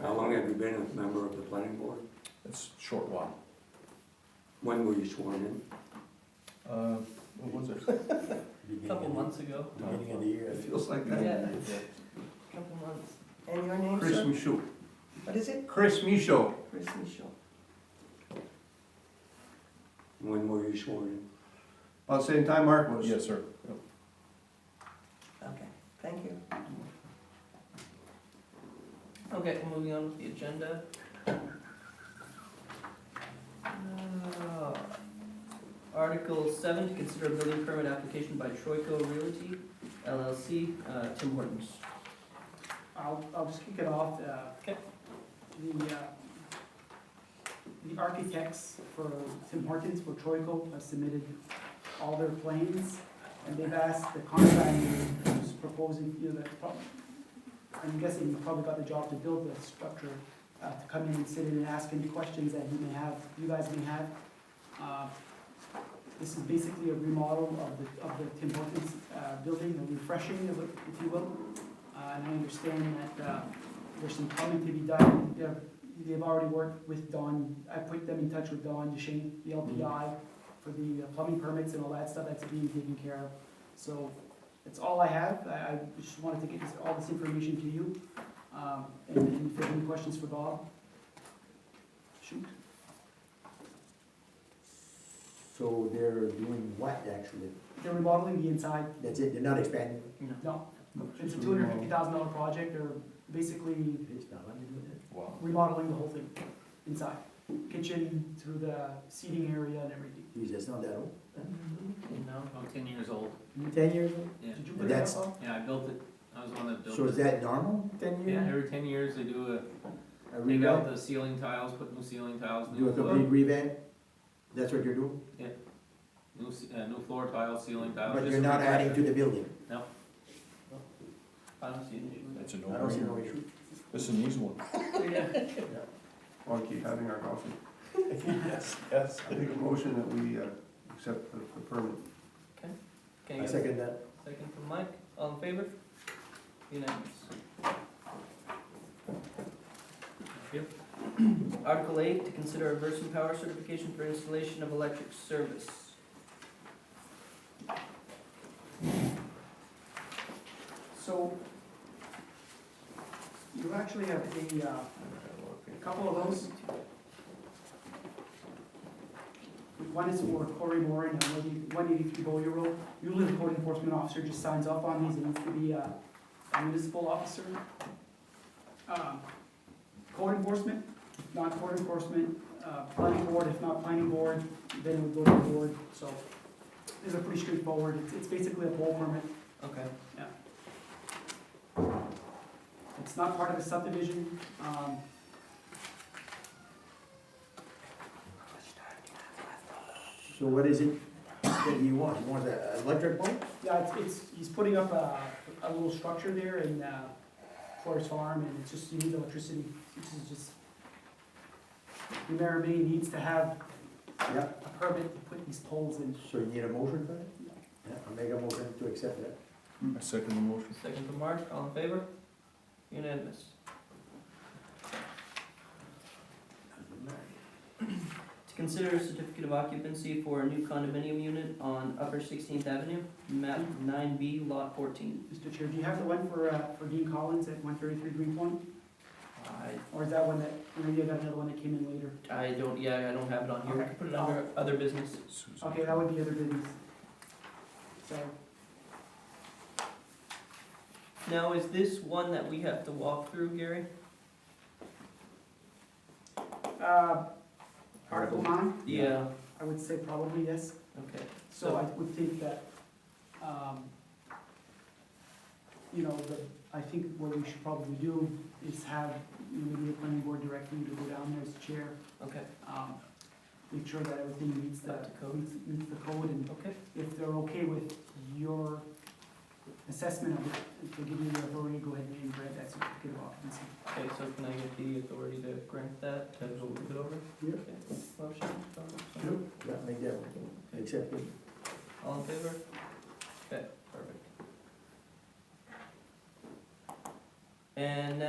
How long have you been a member of the planning board? It's a short while. When were you sworn in? Uh, what was it? Couple months ago. Beginning of the year. It feels like that. Yeah, Yeah. couple months. And your name, Chris sir? Michaud. What is it? Chris Michaud. Chris Michaud. When were you sworn in? About the same time Mark was. Yes, sir. Okay, thank you. Okay, moving on with the agenda. Uh, Article seven, to consider a building permit application by Troico Realty LLC, uh, Tim Hortons. I'll, I'll just kick it off. uh, Okay. The, uh, the architects for Tim Hortons, for Troico, have submitted all their plans, and they've asked the contractor who's proposing, you know, the, pro- I'm guessing you probably got the job to build the structure, uh, to come in and sit in and ask any questions that you may have, you guys may have. Uh, This is basically a remodel of the, of the Tim Hortons uh, building, a refreshing, of it, if you will. Uh, And I understand that uh, there's some plumbing to be done. They've, they've already worked with Don, I put them in touch with Don Duchesne, the LPI, for the uh, plumbing permits and all that stuff that's being taken care of. So that's all I have. I, I just wanted to get this, all this information to you. Um, And and if you have any questions for Bob, shoot. So they're doing what actually? They're remodeling the inside. That's it, they're not expanding? No, it's a two hundred and fifty thousand dollar project. They're basically It's not, I'm doing it. Wow. remodeling the whole thing inside, kitchen through the seating area and everything. Geez, that's not that old. No, About ten years old, Ten years yeah. Did you And put it up? that's- Bob? Yeah, I built it, I was the one that old? built it. So is that normal, ten Yeah, years? every ten years they do A a, take out revamp? the ceiling tiles, put new ceiling tiles, Do new a floor, complete revamp? That's what you're doing? new, ce- uh, new floor tiles, ceiling tiles. But just you're not adding to the building? I don't see an issue with That's a I don't see no no-brainer. issue. This is an easy one. Oh, that. Want to keep having our coffee? Yes, yes. I make a motion that we uh, accept the the permit. Can I you get second that. a second from Mike? All in favor? Unanimous. Thank you. Article eight, to consider a Versant Power certification for installation of electric service. So you actually have a, uh, a couple of those. One is for Corey Moran, and one eighty-three Bowyer Road. Usually the code enforcement officer just signs off on these, it needs to be uh, a municipal officer. Um, Code enforcement, not code enforcement, uh, planning board, if not planning board, then it would go to the board, so these are pretty straightforward. It's- It's basically a pole permit. Okay. It's not part of a subdivision, um. So what is it that you want? You want the electric boat? Yeah, it's, it's, he's putting up a, a little structure there in, uh, Forest Farm, and it's just, you need electricity, which is just. The mayor may needs to have Yeah. a permit to put these poles in. So you need a motion for that? Yeah, I'll make a motion to accept that. I second the motion. Second from Mark, all in favor? Unanimous. To consider a certificate of occupancy for a new condominium unit on Upper Sixteenth Avenue, map nine B, lot fourteen. Mr. Chair, do you have the one for, uh, for Dean Collins at one thirty-three Greenpoint, I, or is that one that, or maybe I got another one that came in later? I don't, yeah, I don't have it on here, we can put it Okay. under other business. Susan. Okay, that would be other business. So, Now, is this one that we have to walk through, Gary? uh, Article nine, Yeah. I would say probably yes. Okay, So I would think that, um, you know, the, I think what we should probably do is have, you know, maybe the planning board direct me to go down there as chair, okay, um, make sure that everything meets the, Up to code. meets, meets the code, and okay, if they're okay with your assessment of it, if they give you the authority, go ahead and grant that certificate of occupancy. okay, so can I get the authority to grant that, to move it over? Yeah. Okay, Motion, Sure, yeah, make that one, accept it. all in favor? Okay, perfect. And now